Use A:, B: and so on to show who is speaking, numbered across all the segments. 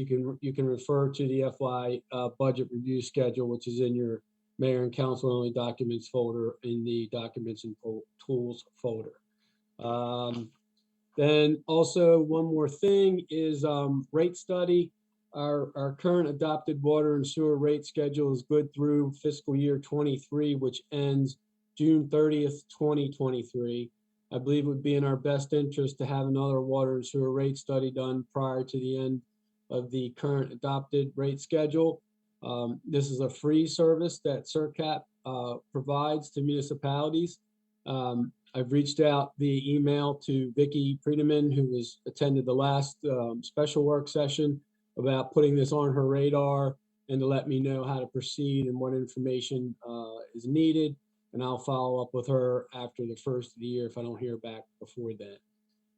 A: you can, you can refer to the FY uh, budget review schedule, which is in your mayor and council only documents folder in the documents and fol- tools folder. Um, Then also, one more thing is um, rate study. Our, our current adopted water and sewer rate schedule is good through fiscal year 23, which ends June 30th, 2023. I believe it would be in our best interest to have another water and sewer rate study done prior to the end of the current adopted rate schedule. Um, This is a free service that CERCAP uh, provides to municipalities. Um, I've reached out via email to Vicky Friedemann, who was attended the last um, special work session about putting this on her radar and to let me know how to proceed and what information uh, is needed. And I'll follow up with her after the first of the year if I don't hear back before then.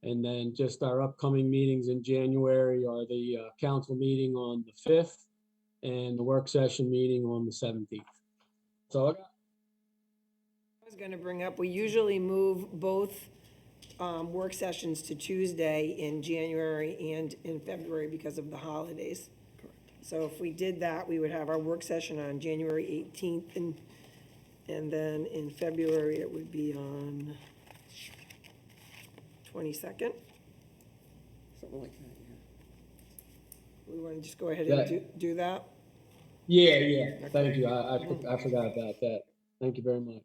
A: And then just our upcoming meetings in January are the uh, council meeting on the 5th and the work session meeting on the 17th. So I got.
B: I was gonna bring up, we usually move both um, work sessions to Tuesday in January and in February because of the holidays. So if we did that, we would have our work session on January 18th, and, and then in February, it would be on 22nd?
C: Something like that, yeah.
B: We want to just go ahead and
A: That-
B: do, do that?
A: Yeah, yeah, thank you. I, I, for- I forgot about that. Thank you very much.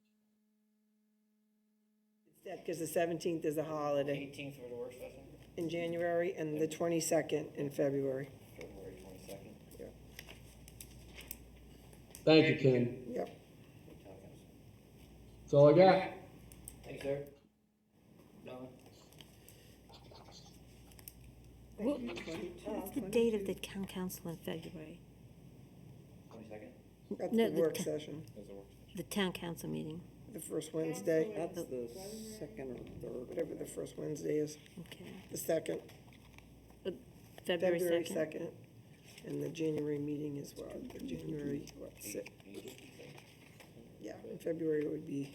B: Because the 17th is a holiday
D: Eighteenth for the work session,
B: in January and the 22nd in February.
D: February twenty-second.
A: Thank you, Ken.
B: Yep.
A: That's all I got.
D: Thanks, sir. Donna?
E: What- What's the date of the town council in February?
D: Twenty-second?
B: That's
E: No,
B: the
E: the
B: work
E: ca-
B: session,
E: The town council meeting,
B: the first Wednesday.
C: That's the second or third.
B: whatever the first Wednesday is,
E: okay.
B: the second,
E: February
B: February
E: 2nd?
B: second. And the January meeting is what, the January, what, six, yeah, in February it would be,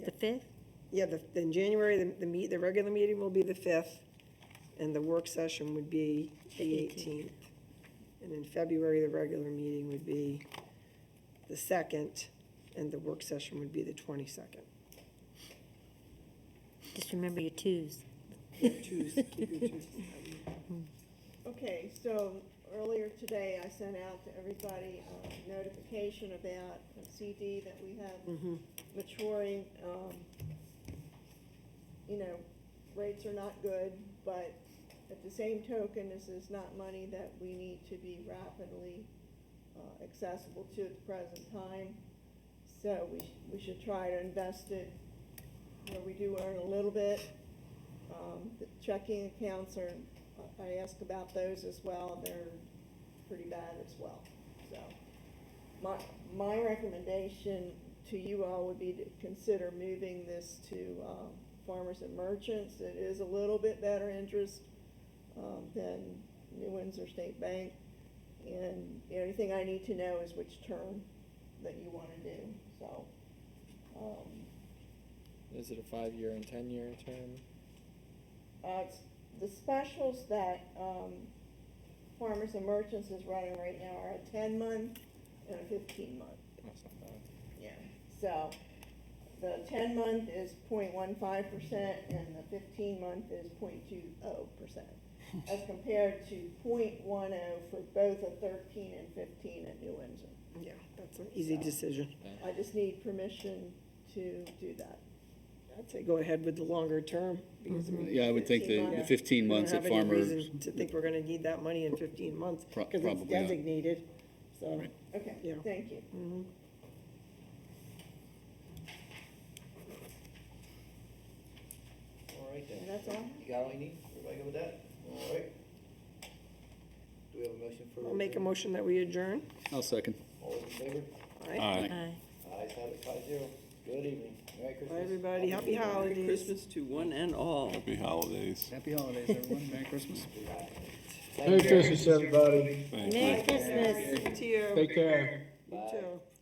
E: The 5th?
B: yeah, the, then January, the, the meet, the regular meeting will be the fifth, and the work session would be the eighteenth. And in February, the regular meeting would be the second, and the work session would be the twenty-second.
E: Just remember your twos.
B: Tuesday, keep your Tuesday.
F: Okay, so earlier today, I sent out to everybody uh, notification about the CD that we
E: Mm-hmm.
F: have maturing. um, You know, rates are not good, but at the same token, this is not money that we need to be rapidly uh, accessible to at the present time. So we, we should try to invest it where we do earn a little bit. Um, the checking accounts are, I asked about those as well, they're pretty bad as well, so. My, my recommendation to you all would be to consider moving this to, um, farmers and merchants. It is a little bit better interest, um, than New Windsor State Bank. And the only thing I need to know is which term that you wanna do, so, um,
G: Is it a five-year and ten-year term?
F: Uh, it's the specials that, um, Farmers and Merchants is running right now are a ten month and a fifteen month.
G: That's not bad.
F: Yeah. So, the ten month is 0.15 percent and the fifteen month is 0.20 percent. As compared to 0.10 for both a thirteen and fifteen at New Windsor.
B: Yeah, that's an easy decision.
F: I just need permission to do that.
B: I'd say go ahead with the longer term, because we
H: Yeah, I would think the the 15 Mm-hmm. months at
B: We don't have any
H: farmers,
B: reason to think we're gonna need that money in fifteen months,
H: Pro-
B: because it's
H: probably not.
B: designated, Mm-hmm. so.
H: Right.
F: Okay,
B: Yeah.
F: thank you.
D: All right then.
F: And that's all?
D: You got all you need? Everybody good with that? All right. Do we have a motion for?
B: I'll make a motion that we adjourn,
H: I'll second.
D: All those in favor?
B: all right?
H: Aye.
E: Aye.
D: Ayes have it, five zero. Good evening. Merry
B: Bye,
D: Christmas.
B: everybody, happy holidays.
C: Christmas to one and all.
I: Happy holidays.
G: Happy holidays, everyone. Merry Christmas.
D: Thank you.
A: Merry Christmas, everybody.
I: Thank you.
E: Merry Christmas.
B: To you,
A: Take care.
B: you too.